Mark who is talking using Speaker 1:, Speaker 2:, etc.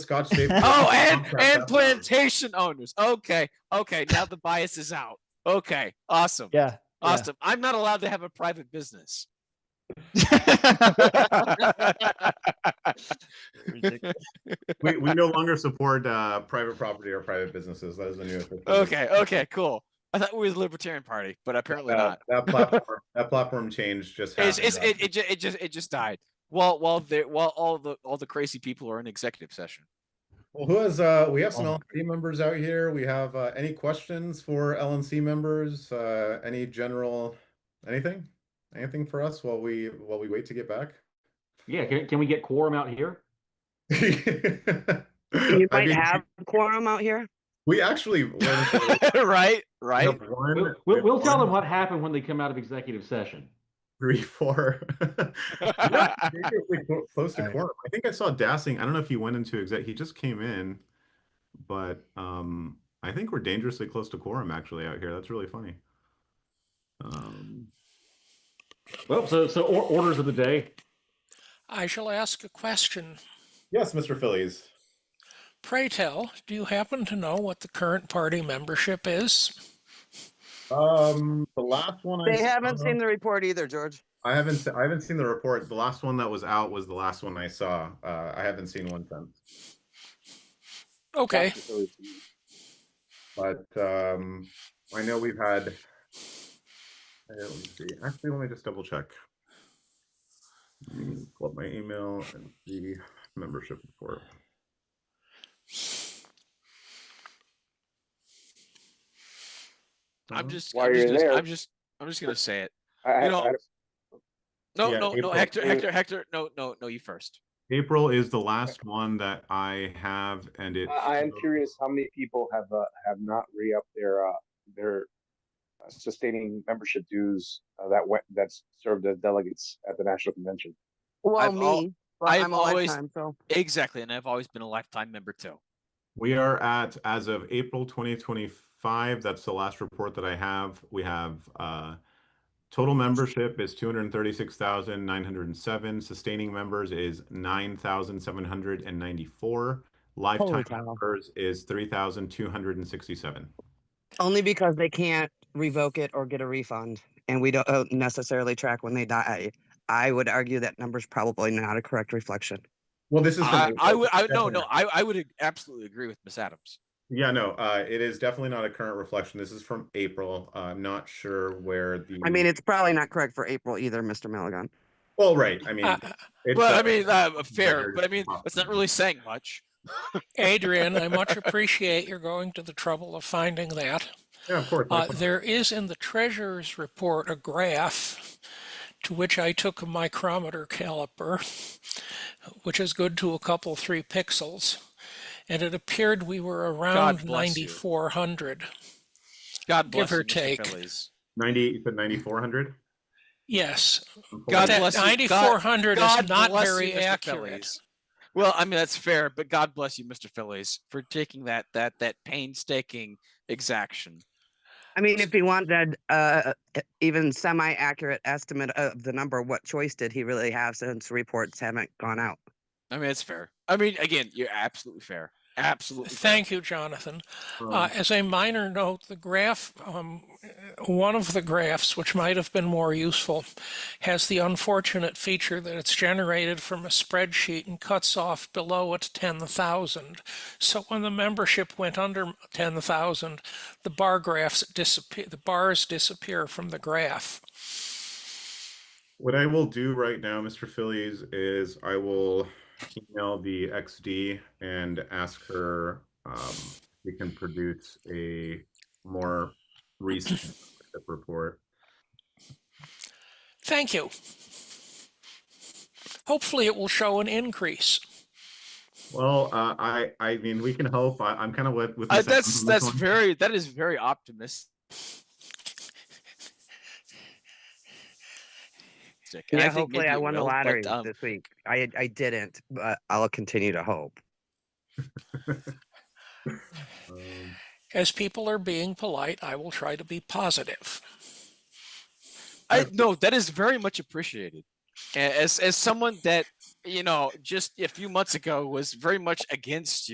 Speaker 1: Scotch tape.
Speaker 2: Oh, and and plantation owners. Okay, okay. Now the bias is out. Okay, awesome,
Speaker 3: Yeah.
Speaker 2: awesome. I'm not allowed to have a private business.
Speaker 3: Ridiculous.
Speaker 1: we, we no longer support uh, private property or private businesses. That is the new. official-
Speaker 2: Okay, okay, cool. I thought we were the Libertarian Party, but apparently
Speaker 1: Uh,
Speaker 2: not.
Speaker 1: That platform, that platform change just
Speaker 2: It's,
Speaker 1: happened.
Speaker 2: it's,
Speaker 1: uh,
Speaker 2: it, it, ju- it just it just died. While while they while all the all the crazy people are in executive session.
Speaker 1: Well, who has, uh, we have some
Speaker 3: Oh.
Speaker 1: LNC members out here. We have, uh, any questions for LNC members? Uh, any general, anything? Anything for us while we, while we wait to get back?
Speaker 4: Yeah, can, can we get quorum out here?
Speaker 1: You
Speaker 5: You might have quorum out here.
Speaker 1: We actually. we
Speaker 2: right, right.
Speaker 1: have one-
Speaker 4: We'll,
Speaker 1: we
Speaker 4: we'll,
Speaker 1: have
Speaker 4: we'll tell them
Speaker 1: one,
Speaker 4: what happened when they come out of executive session.
Speaker 1: Three, four. We're actually dangerously clo- Close to
Speaker 3: Alright.
Speaker 1: quorum. I think I saw Dassing. I don't know if he went into exec, he just came in. But, um, I think we're dangerously close to quorum actually out here. That's really funny. Um.
Speaker 4: Well, so, so or- orders of the day.
Speaker 6: I shall ask a question.
Speaker 1: Yes, Mr. Phillies.
Speaker 6: Pray tell, do you happen to know what the current party membership is?
Speaker 1: Um, the last one I
Speaker 5: They haven't
Speaker 2: Uh-huh.
Speaker 1: saw-
Speaker 5: seen the report either, George.
Speaker 1: I haven't. se- I haven't seen the report. The last one that was out was the last one I saw. Uh, I haven't seen one since.
Speaker 6: Okay,
Speaker 1: But um, I know we've had. uh, Let me see. Actually, let me just double check. Let me Pull up my email and the membership report.
Speaker 2: I'm just
Speaker 7: While
Speaker 2: I'm just,
Speaker 7: you're
Speaker 2: gonna,
Speaker 7: there-
Speaker 2: I'm just I'm just gonna say it.
Speaker 7: I, I-
Speaker 2: You know-
Speaker 7: I-
Speaker 2: No,
Speaker 1: Yeah,
Speaker 2: no, no,
Speaker 1: April-
Speaker 2: Hector,
Speaker 7: April-
Speaker 2: Hector, Hector, no, no, no, you first.
Speaker 1: April is the last one that I have, and it.
Speaker 7: I I am
Speaker 1: showed-
Speaker 7: curious how many people have, uh, have not re-upped their, uh, their uh, sustaining membership dues uh, that went, that's served as delegates at the national convention.
Speaker 5: Well,
Speaker 2: I've al-
Speaker 5: me, but
Speaker 2: I've
Speaker 5: I'm a
Speaker 2: always-
Speaker 5: lifetime, so.
Speaker 2: Exactly, and I've always been a lifetime member too.
Speaker 1: We are at, as of April 2025, that's the last report that I have. We have uh, total membership is 236,907. Sustaining members is 9,794. Lifetime
Speaker 5: cow.
Speaker 1: members is 3,267.
Speaker 5: Only because they can't revoke it or get a refund, and we don't uh, necessarily track when they die. I would argue that number's probably not a correct reflection.
Speaker 1: Well, this is.
Speaker 2: I, I would I no no I, I would ag- absolutely agree with Miss Adams.
Speaker 1: Yeah, no, uh, it is definitely not a current reflection. This is from April. Uh, I'm not sure where the.
Speaker 5: I
Speaker 2: Mm.
Speaker 5: mean, it's probably not correct for April either, Mr. Milligan.
Speaker 1: Well, right. I mean.
Speaker 6: Uh,
Speaker 1: it's,
Speaker 2: Well, I
Speaker 1: uh,
Speaker 2: mean uh, fair,
Speaker 1: better
Speaker 2: but I mean that's not really saying much.
Speaker 6: Adrian, I much appreciate your going to the trouble of finding that.
Speaker 1: Yeah, of course. no
Speaker 6: Uh,
Speaker 1: question.
Speaker 6: there is in the treasurer's report a graph to which I took a micrometer caliper, which is good to a couple, three pixels, and it appeared we were around
Speaker 2: bless you.
Speaker 6: 9,400.
Speaker 2: God
Speaker 6: Give
Speaker 2: bless you,
Speaker 6: or take.
Speaker 2: Mr. Phillies.
Speaker 1: 98, you said 9,400?
Speaker 6: Yes,
Speaker 2: God
Speaker 6: that
Speaker 2: bless you. God-
Speaker 6: 9,400
Speaker 2: God
Speaker 6: is not
Speaker 2: bless you,
Speaker 6: very
Speaker 2: Mr.
Speaker 6: accurate.
Speaker 2: Phillies. Well, I mean that's fair, but God bless you, Mr. Phillies, for taking that that that painstaking exaction.
Speaker 5: I mean, if he wanted uh, e- even semi-accurate estimate of the number, what choice did he really have since reports haven't gone out?
Speaker 2: I mean it's fair. I mean again, you're absolutely fair. Absolutely. fair.
Speaker 6: Thank you, Jonathan. Uh, as a minor note, the graph, um, one of the graphs, which might have been more useful, has the unfortunate feature that it's generated from a spreadsheet and cuts off below at 10,000. So when the membership went under 10,000, the bar graphs disappear, the bars disappear from the graph.
Speaker 1: What I will do right now, Mr. Phillies, is I will email the XD and ask her um, if we can produce a more recent membership report.
Speaker 6: Thank you. Hopefully, it will show an increase.
Speaker 1: Well, uh, I I mean we can hope. I, I'm kind of with, with
Speaker 2: Uh,
Speaker 1: Miss Adams
Speaker 2: that's
Speaker 1: on this
Speaker 2: that's
Speaker 1: one.
Speaker 2: very that is very optimistic. And
Speaker 5: Yeah,
Speaker 2: think
Speaker 5: hopefully
Speaker 2: maybe
Speaker 5: I
Speaker 2: it
Speaker 5: won the
Speaker 2: will, but,
Speaker 5: lottery
Speaker 2: um,
Speaker 5: this week. I I didn't, but I'll continue to hope.
Speaker 1: Um,
Speaker 6: As people are being polite, I will try to be positive.
Speaker 2: I no, that is very much appreciated. A- As as someone that you know, just a few months ago was very much against you.